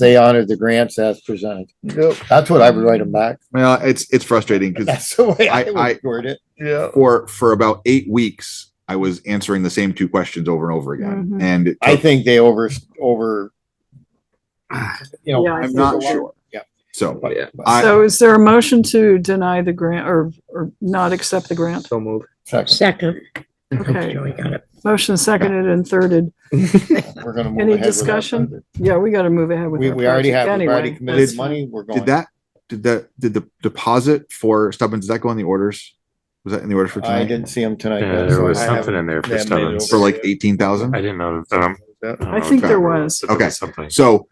they honored the grants as presented. Yep, That's what I would write them back. Well, it's, it's frustrating because That's the way I I- I- would word it. yeah. for, for about eight weeks, I was answering the same two questions over and over again. Mhm. And it I took- think they over, over. You know. Yeah, I I'm think not so. sure. Yeah. So but- Oh, Yeah. but- I- So is there a motion to deny the grant or, or not accept the grant? So move. Second, Second. Okay. Joey got it. Motion seconded and thirded. we're gonna move Any ahead. with our discussion? budget. Yeah, we gotta move ahead with We, that. we already project have, we've already anyway. committed That's the money, we're going. did that, did that, did the deposit for Stubbins, did that go in the orders? Was that in the order for I tonight? didn't see him tonight. Yeah, yet, there so was I haven't- something in there for Yeah, maybe Stubbins. For like eighteen thousand? I didn't know. Um, Yeah. don't I know think there exactly what it was. but there Okay. Something. So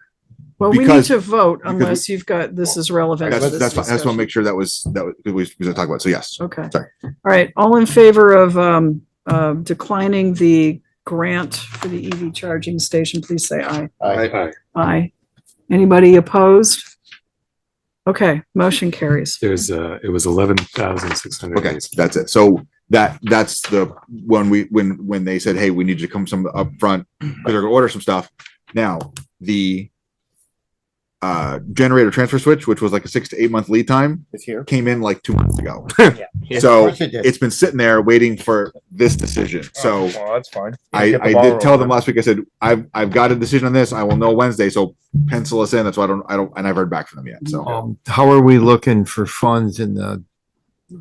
Well, we need because- to vote because we- unless you've got, this is relevant. to that's, this that's, I just want to discussion. make sure that was, that was, we was gonna talk about. it. So yes. Okay. Sorry. All right. All in favor of, um, uh, declining the grant for the EV charging station, please say aye. I- Aye. Aye. Anybody opposed? Okay, motion carries. There's uh, it was eleven thousand six hundred. Okay, that's it. So that, that's the, when we, when, when they said, hey, we need you to come some up front, because they're gonna order some stuff. Now, the uh, generator transfer switch, which was like a six to eight month lead time, It's here. came in like two months ago. Yeah, of So course it did. it's been sitting there waiting for this decision. So Oh, Well, that's fine. I, Get the I ball did tell them rolling. last week, I said, I've, I've got a decision on this. I will know Wednesday. So pencil us in. That's why I don't, I don't, and I've heard back from them yet. Oh, So. Um, how are we looking for funds in the,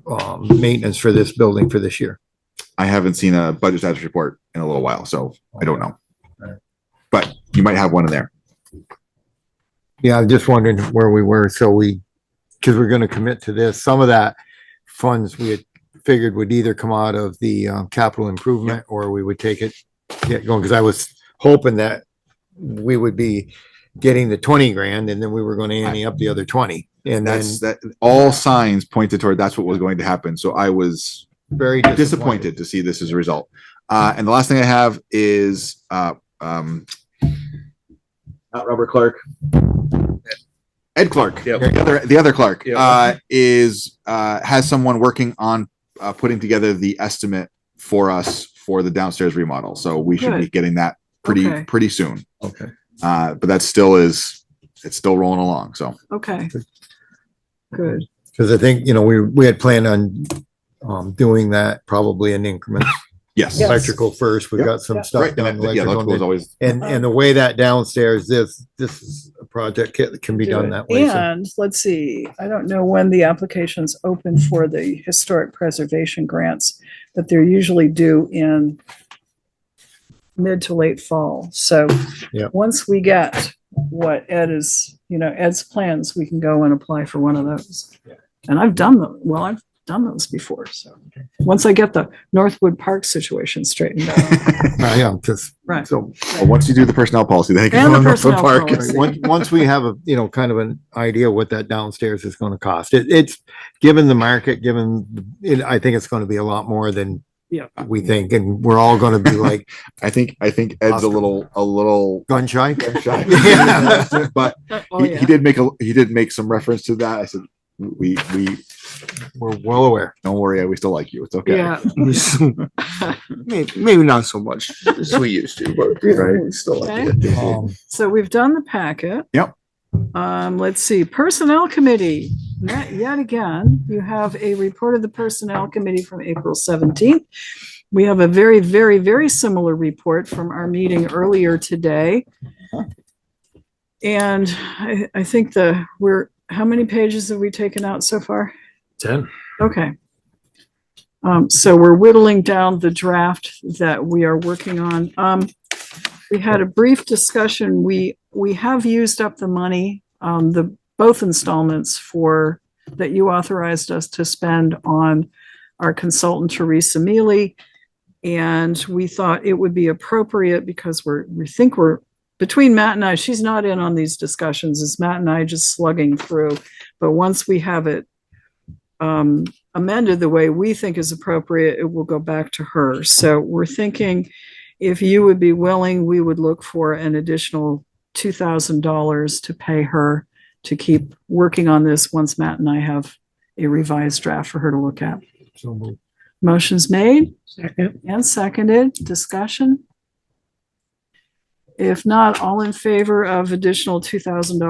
um, maintenance for this building for this year? I haven't seen a budget status report in a little while, so I don't know. But you might have one in there. Yeah, I'm just wondering where we were, so we, because we're gonna commit to this, some of that funds we had figured would either come out of the, um, capital improvement, or we would take it, get going, because I was hoping that we would be getting the twenty grand, and then we were gonna ante up the other twenty, and then That's that all signs pointed toward that's what was going to happen. So I was very disappointed to see this as a result. Uh, and the last thing I have is uh, um, not Robert Clark, Ed Clark, Yep. the other the other Clark Yep. uh, is uh, has someone working on uh, putting together the estimate for us for the downstairs remodel. So we should be getting that pretty Okay. pretty soon. Okay. Uh, but that still is it's still rolling along. So Okay. Good. Because I think, you know, we, we had planned on, um, doing that probably in increments. yes, Yes. Electrical first, we Yep. got some Yep. stuff right. And done. that, yeah, electrical is electrical, always And, and the way that downstairs, this, this is a project that can be Do it. done that way. so- And let's see, I don't know when the applications open for the historic preservation grants, but they're usually due in mid to late fall. So Yep. once we get what Ed is, you know, Ed's plans, we can go and apply for one of those. And I've done them, well, I've done those before, so. Once I get the Northwood Park situation straightened out, Uh, Yeah, because, right. so, Well, once you do the personnel policy, then you And can the go to Northwood personnel Park. policy. once, once we have a, you know, kind of an idea what that downstairs is going to cost, it, it's, given the market, given, the- it, I think it's going to be a lot more than Yeah. we think, and we're all going to be like I think I think Ed's a Oscar. little a little gun shy. shy, but Oh, he, yeah. he did make a he did make some reference to that. I said we we We're well aware. don't worry, we still like you. It's okay. Yeah. Maybe, maybe not so much as we used to, but you know, we still like it. Um, So we've done the packet. Yep. Um, let's see, Personnel Committee, yet, yet again, you have a report of the Personnel Committee from April seventeenth. We have a very, very, very similar report from our meeting earlier today. And I, I think the, we're, how many pages have we taken out so far? Ten. Okay. Um, so we're whittling down the draft that we are working on. Um, we had a brief discussion. We, we have used up the money, um, the, both installments for, that you authorized us to spend on our consultant Teresa Mealy. And we thought it would be appropriate because we're, we think we're, between Matt and I, she's not in on these discussions. It's Matt and I just slugging through. But once we have it um, amended the way we think is appropriate, it will go back to her. So we're thinking if you would be willing, we would look for an additional two thousand dollars to pay her to keep working on this once Matt and I have a revised draft for her to look at. so moved. Motion's made Second. and seconded. Discussion? If not, all in favor of additional two thousand dollars